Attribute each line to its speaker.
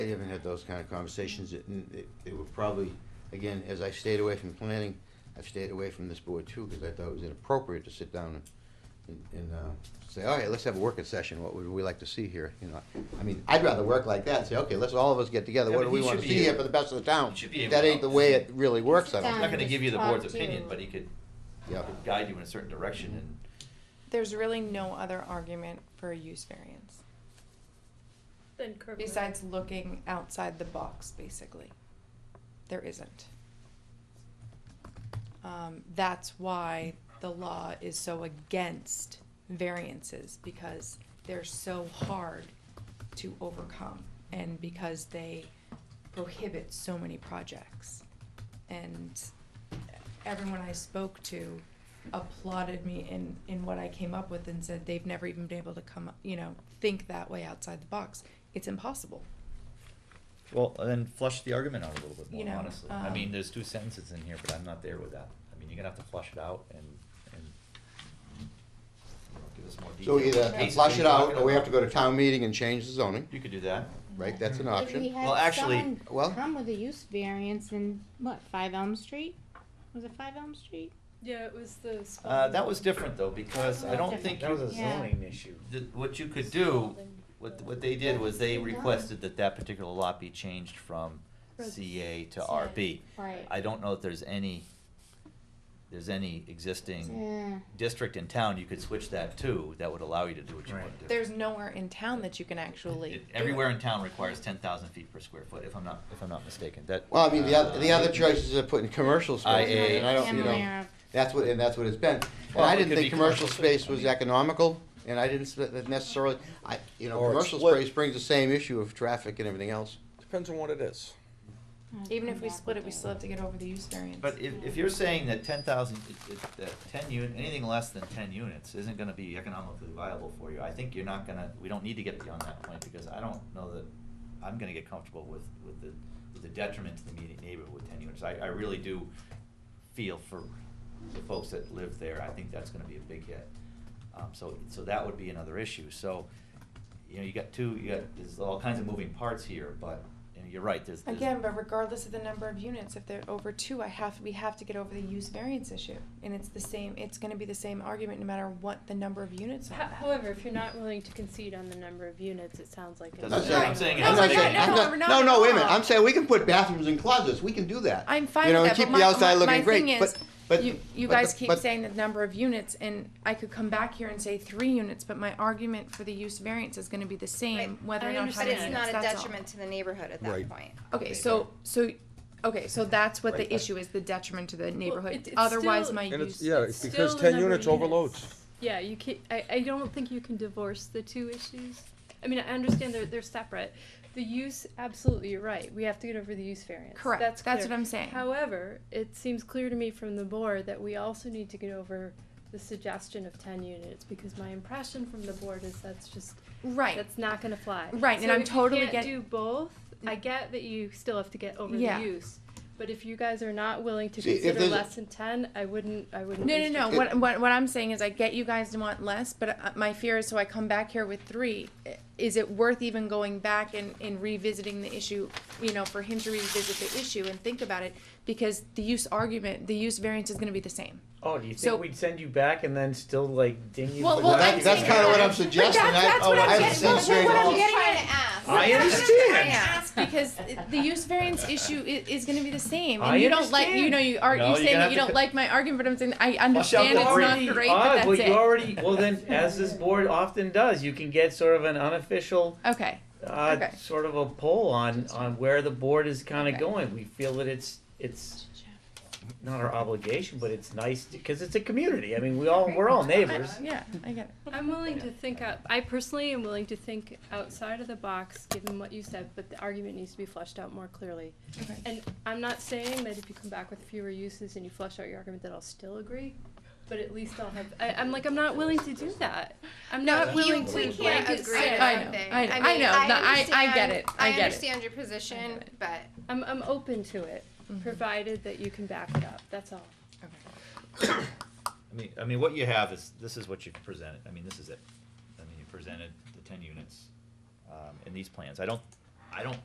Speaker 1: I haven't had those kind of conversations, It- and it, it would probably, again, as I stayed away from planning, I've stayed away from this board too, because I thought it was inappropriate to sit down and, and- and, uh, say, all right, let's have a working session, what would we like to see here, you know? I mean, I'd rather work like that, and say, okay, let's all of us get together,
Speaker 2: Yeah,
Speaker 1: what
Speaker 2: but
Speaker 1: do we
Speaker 2: he
Speaker 1: wanna
Speaker 2: should be
Speaker 1: see here
Speaker 2: able-
Speaker 1: for the best of the town?
Speaker 2: he should be able
Speaker 1: That
Speaker 2: to-
Speaker 1: ain't the way it really works, I
Speaker 3: Sit
Speaker 1: don't
Speaker 2: I'm
Speaker 1: think.
Speaker 2: not gonna give you the board's
Speaker 3: Talk to-
Speaker 2: opinion, but he could
Speaker 1: Yeah.
Speaker 2: guide you in a certain direction and.
Speaker 4: There's really no other argument for a use variance
Speaker 5: Then curb. your-
Speaker 4: besides looking outside the box, basically. There isn't. Um, that's why the law is so against variances because they're so hard to overcome and because they prohibit so many projects. And everyone I spoke to applauded me in, in what I came up with and said they've never even been able to come, up- you know, think that way outside the box. It's impossible.
Speaker 2: Well, and then flush the argument out a little bit
Speaker 4: You know,
Speaker 2: more, honestly. I
Speaker 4: um,
Speaker 2: mean, there's two sentences in here, but I'm not there with that. I mean, you're gonna have to flush it out and, and give us more detail.
Speaker 1: So either
Speaker 2: Cases
Speaker 1: flush
Speaker 2: you're
Speaker 1: it out,
Speaker 2: talking
Speaker 1: or we have to
Speaker 2: about.
Speaker 1: go to town meeting and change the zoning,
Speaker 2: You could do that.
Speaker 1: right, that's an
Speaker 3: But we
Speaker 1: option.
Speaker 3: had
Speaker 2: Well, actually-
Speaker 3: someone
Speaker 1: Well-
Speaker 3: Come with a use variance in, what, Five Elm Street? Was it Five Elm Street?
Speaker 5: Yeah, it was the. spelling.
Speaker 2: Uh, that was different though, because I don't think,
Speaker 6: That was a
Speaker 3: Yeah.
Speaker 6: zoning issue.
Speaker 2: th- what you could do, what, what they did was they requested that that particular lot be changed from CA to RB.
Speaker 3: Right.
Speaker 2: I don't know if there's any, there's any existing
Speaker 3: Yeah.
Speaker 2: district in town you could switch that to, that would allow you to do what you want
Speaker 6: Right.
Speaker 2: to do.
Speaker 4: There's nowhere in town that you can actually.
Speaker 2: It-
Speaker 4: do
Speaker 2: Everywhere
Speaker 4: it.
Speaker 2: in town requires ten thousand feet per square foot, if I'm not, if I'm not mistaken, that.
Speaker 1: Well, I mean, the other, the other choices are putting commercial space,
Speaker 2: IA.
Speaker 1: and I don't, you
Speaker 3: Am
Speaker 1: know.
Speaker 3: aware of-
Speaker 1: That's what, and that's what it's been. And
Speaker 2: Well,
Speaker 1: I
Speaker 2: it
Speaker 1: didn't
Speaker 2: could
Speaker 1: think
Speaker 2: be
Speaker 1: commercial
Speaker 2: commercial space,
Speaker 1: space
Speaker 2: I
Speaker 1: was
Speaker 2: mean-
Speaker 1: economical, and I didn't s- necessarily, I, you know,
Speaker 7: Or it's
Speaker 1: commercial
Speaker 7: split.
Speaker 1: space brings the same issue of traffic and everything else.
Speaker 7: Depends on what it is.
Speaker 3: I'll
Speaker 4: Even
Speaker 3: come
Speaker 4: if we
Speaker 3: back
Speaker 4: split it,
Speaker 3: with
Speaker 4: we
Speaker 3: that.
Speaker 4: still have to get over the use variance.
Speaker 2: But if, if you're saying that ten thousand, that ten unit, anything less than ten units isn't gonna be economically viable for you, I think you're not gonna, we don't need to get beyond that point, because I don't know that, I'm gonna get comfortable with, with the, with the detriment to the immediate neighborhood with ten units, I, I really do feel for the folks that live there, I think that's gonna be a big hit. Um, so, so that would be another issue, so, you know, you got two, you got, there's all kinds of moving parts here, but, you know, you're right, there's. there's-
Speaker 4: Again, but regardless of the number of units, if they're over two, I have, we have to get over the use variance issue. And it's the same, it's gonna be the same argument no matter what the number of units
Speaker 5: Ho-
Speaker 4: are.
Speaker 5: However, if you're not willing to concede on the number of units, it sounds like. it's-
Speaker 2: That's
Speaker 1: Right.
Speaker 2: I'm saying it
Speaker 1: I'm not
Speaker 2: has to be-
Speaker 1: saying- I'm
Speaker 2: No,
Speaker 1: not-
Speaker 4: we're not
Speaker 1: No,
Speaker 4: at
Speaker 1: no, wait a minute,
Speaker 4: all.
Speaker 1: I'm saying we can put bathrooms in closets, we can do that.
Speaker 4: I'm fine
Speaker 1: You know,
Speaker 4: with
Speaker 1: and
Speaker 4: that, but
Speaker 1: keep the
Speaker 4: my-
Speaker 1: outside
Speaker 4: my-
Speaker 1: looking
Speaker 4: my
Speaker 1: great,
Speaker 4: thing is,
Speaker 1: but- but-
Speaker 4: You, you
Speaker 1: but the-
Speaker 4: guys keep
Speaker 1: but-
Speaker 4: saying the number of units and I could come back here and say three units, but my argument for the use variance is gonna be the same,
Speaker 8: Right.
Speaker 4: whether or
Speaker 5: I
Speaker 4: not how
Speaker 8: But
Speaker 5: understand.
Speaker 4: many
Speaker 8: it's
Speaker 4: units,
Speaker 8: not a
Speaker 4: that's all.
Speaker 8: detriment to the neighborhood at that
Speaker 7: Right.
Speaker 8: point.
Speaker 4: Okay, so, so, okay, so that's what the
Speaker 7: Right.
Speaker 4: issue is, the detriment to the
Speaker 5: it-
Speaker 4: neighborhood,
Speaker 5: it's
Speaker 4: otherwise
Speaker 5: still-
Speaker 4: my use.
Speaker 7: And it's, yeah,
Speaker 5: It's
Speaker 7: it's because
Speaker 5: still the
Speaker 7: ten
Speaker 5: number of
Speaker 7: units
Speaker 5: units.
Speaker 7: overloads.
Speaker 5: Yeah, you can't, I, I don't think you can divorce the two issues. I mean, I understand they're, they're separate. The use, absolutely, you're right. We have to get over the use variance.
Speaker 4: Correct. That's
Speaker 5: clear.
Speaker 4: what I'm saying.
Speaker 5: However, it seems clear to me from the board that we also need to get over the suggestion of ten units, because my impression from the board is that's just,
Speaker 4: Right,
Speaker 5: that's not gonna fly.
Speaker 4: Right, and
Speaker 5: So
Speaker 4: I'm
Speaker 5: if you
Speaker 4: totally
Speaker 5: can't
Speaker 4: get-
Speaker 5: Do both, I get that you still have to get over the
Speaker 4: Yeah.
Speaker 5: use. But if you guys are not willing to
Speaker 1: See, if
Speaker 5: consider
Speaker 1: there's-
Speaker 5: less than ten, I wouldn't, I wouldn't.
Speaker 4: no, no,
Speaker 5: waste your
Speaker 4: no,
Speaker 5: time.
Speaker 4: what, what, what I'm saying is I get you guys to want less, but uh, my fear is, so I come back here with three, i- is it worth even going back and, and revisiting the issue, you know, for him to revisit the issue and think about it? Because the use argument, the use variance is gonna be the same.
Speaker 6: Oh, do you
Speaker 4: So-
Speaker 6: think we'd send you back and then still like ding you?
Speaker 4: Well,
Speaker 6: for
Speaker 4: well,
Speaker 6: that?
Speaker 4: I'm
Speaker 1: That's
Speaker 4: saying-
Speaker 1: kinda what I'm
Speaker 4: But
Speaker 1: suggesting, I,
Speaker 4: that's- that's what
Speaker 1: I
Speaker 4: I'm
Speaker 1: was
Speaker 4: getting-
Speaker 1: saying
Speaker 4: well,
Speaker 1: straight
Speaker 4: what I'm
Speaker 1: off.
Speaker 4: getting-
Speaker 3: Trying to ask.
Speaker 6: I
Speaker 4: That's what I'm trying to
Speaker 6: understand.
Speaker 4: ask, Because i- the use variance issue i- is gonna be the same,
Speaker 6: I
Speaker 4: and you don't like, you know, you are,
Speaker 2: No,
Speaker 4: you
Speaker 2: you're
Speaker 4: saying
Speaker 2: gonna
Speaker 4: that
Speaker 2: have
Speaker 4: you
Speaker 2: to
Speaker 4: don't
Speaker 2: co-
Speaker 4: like my argument, but I'm saying, I
Speaker 6: Flush out
Speaker 4: understand
Speaker 6: the
Speaker 4: it's
Speaker 6: three.
Speaker 4: not
Speaker 6: Pretty
Speaker 4: great,
Speaker 6: odd,
Speaker 4: but that's
Speaker 6: you
Speaker 4: it.
Speaker 6: already well then, as this board often does, you can get sort of an unofficial
Speaker 4: Okay,
Speaker 6: uh,
Speaker 4: Okay.
Speaker 6: sort of a poll on on where the board is kind of
Speaker 4: Okay.
Speaker 6: going. We feel that it's it's not our obligation, but it's nice because it's a community. I mean, we all we're all neighbors.
Speaker 4: yeah, I get it.
Speaker 5: I'm willing to think out, I personally am willing to think outside of the box, given what you said, but the argument needs to be fleshed out more clearly.
Speaker 4: Okay.
Speaker 5: And I'm not saying that if you come back with fewer uses and you flesh out your argument that I'll still agree, but at least I'll have, I, I'm like, I'm not willing to do that. I'm not
Speaker 8: You-
Speaker 5: willing to.
Speaker 8: We
Speaker 5: blanket
Speaker 8: can't agree
Speaker 5: say-
Speaker 8: on
Speaker 4: I know,
Speaker 8: something.
Speaker 4: I know,
Speaker 8: mean,
Speaker 4: I know. No, I- I get
Speaker 8: understand-
Speaker 4: it, I get it.
Speaker 8: I understand your
Speaker 4: I
Speaker 8: position,
Speaker 4: get
Speaker 8: but
Speaker 5: I'm, I'm open to it, provided that you can back it up, that's all.
Speaker 2: I mean, I mean, what you have is, this is what you've presented, I mean, this is it. I mean, you presented the ten units, um, in these plans, I don't, I don't